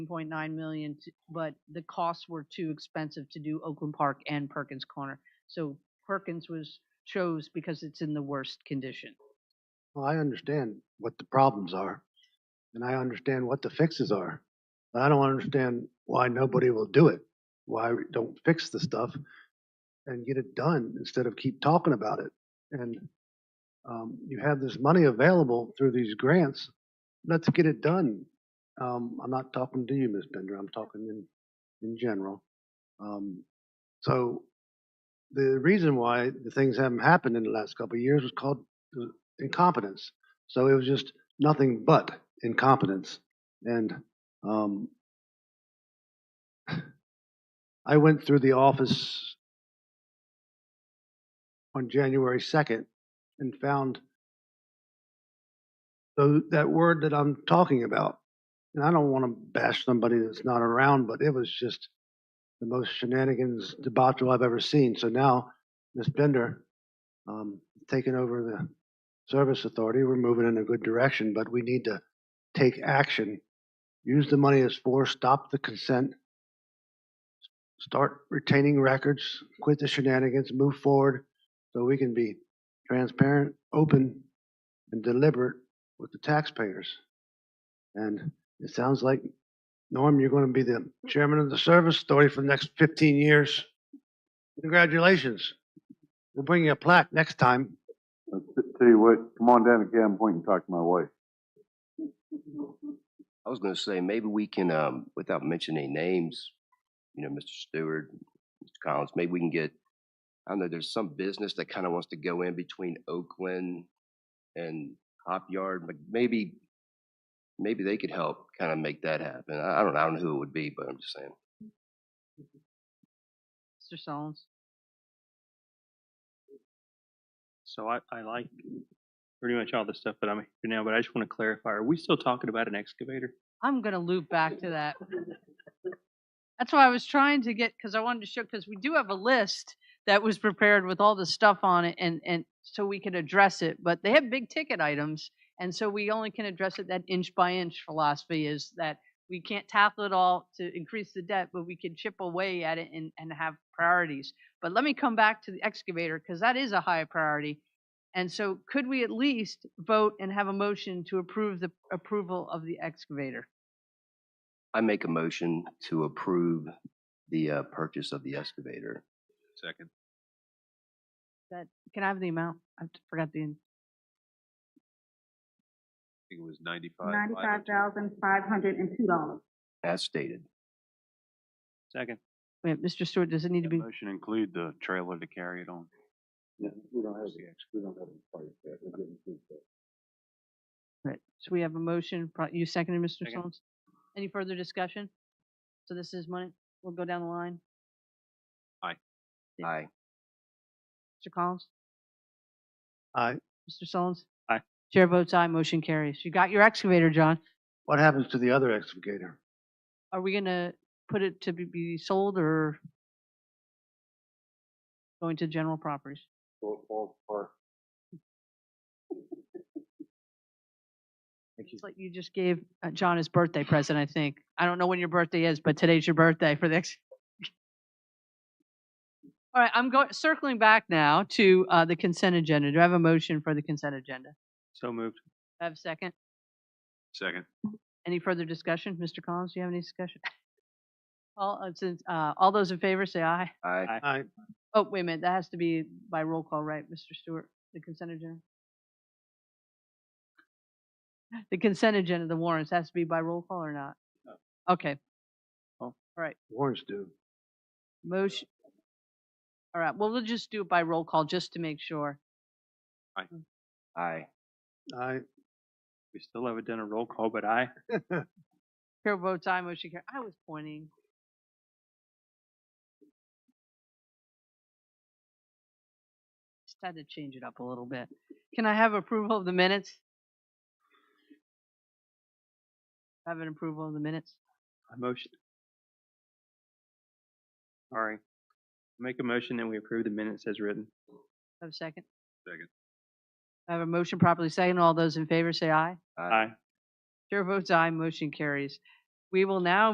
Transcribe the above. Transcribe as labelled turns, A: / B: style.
A: point nine million, t- but the costs were too expensive to do Oakland Park and Perkins Corner. So Perkins was, chose because it's in the worst condition.
B: Well, I understand what the problems are, and I understand what the fixes are, but I don't understand why nobody will do it, why we don't fix the stuff and get it done instead of keep talking about it. And um, you have this money available through these grants, let's get it done. Um, I'm not talking to you, Ms. Bender, I'm talking in, in general. Um, So the reason why the things haven't happened in the last couple of years was called incompetence. So it was just nothing but incompetence. And um, I went through the office on January 2nd and found tho- that word that I'm talking about. And I don't want to bash somebody that's not around, but it was just the most shenanigans debacle I've ever seen. So now Ms. Bender um, taking over the Service Authority, we're moving in a good direction, but we need to take action. Use the money as for, stop the consent, start retaining records, quit the shenanigans, move forward so we can be transparent, open, and deliberate with the taxpayers. And it sounds like, Norm, you're going to be the chairman of the Service Authority for the next 15 years. Congratulations. We'll bring you a plaque next time.
C: I'll t- Tell you what, come on down to Cam Point and talk to my wife.
D: I was gonna say, maybe we can, um, without mentioning names, you know, Mr. Stewart, Mr. Collins, maybe we can get, I don't know, there's some business that kind of wants to go in between Oakland and Hop Yard, but maybe, maybe they could help kind of make that happen. I, I don't, I don't know who it would be, but I'm just saying.
A: Mr. Sullins,
E: So I, I like pretty much all the stuff that I'm here now, but I just want to clarify, are we still talking about an excavator?
A: I'm gonna loop back to that. That's why I was trying to get, because I wanted to show, because we do have a list that was prepared with all the stuff on it and, and so we could address it, but they have big ticket items. And so we only can address it that inch by inch philosophy is that we can't tackle it all to increase the debt, but we can chip away at it and, and have priorities. But let me come back to the excavator, because that is a high priority. And so could we at least vote and have a motion to approve the approval of the excavator?
D: I make a motion to approve the, uh, purchase of the excavator.
E: Second.
A: That, can I have the amount? I forgot the,
E: I think it was ninety-five.
F: Ninety-five thousand, five hundred and two dollars.
D: As stated,
E: Second.
A: wait, Mr. Stewart, does it need to be?
E: Motion include the trailer to carry it on.
C: Yeah, we don't have the, we don't have the part yet. We didn't do that.
A: Right, so we have a motion, pro- you seconded, Mr.
E: Second.
A: Solms? Any further discussion? So this is money, we'll go down the line.
D: aye.
A: Mr. Collins?
B: I,
A: Mr. Solms?
E: Aye.
A: Chair votes aye, motion carries. You got your excavator, John.
B: What happens to the other excavator?
A: Are we gonna put it to be- be sold or going to general properties?
C: So it falls apart.
A: It's like you just gave uh, John his birthday present, I think. I don't know when your birthday is, but today's your birthday for the next. All right, I'm going, circling back now to uh, the consent agenda. Do I have a motion for the consent agenda?
E: So moved.
A: Do I have a second?
E: Second.
A: Any further discussion? Mr. Collins, do you have any discussion? All, uh, since, uh, all those in favor say aye.
D: Aye.
B: I,
A: Oh, wait a minute, that has to be by roll call, right, Mr. Stewart, the consent agenda? The consent agenda, the warrants, has to be by roll call or not? Okay,
B: warrants do.
A: motion. All right, well, we'll just do it by roll call, just to make sure.
D: Aye.
B: I,
E: We still haven't done a roll call, but I,
A: Chair votes aye, motion carries. I was pointing. Just had to change it up a little bit. Can I have approval of the minutes? Have an approval of the minutes?
E: I motioned. All right. Make a motion and we approve the minutes as written.
A: Have a second?
E: Second.
A: I have a motion properly second. All those in favor say aye.
E: Aye.
A: Chair votes aye, motion carries. We will now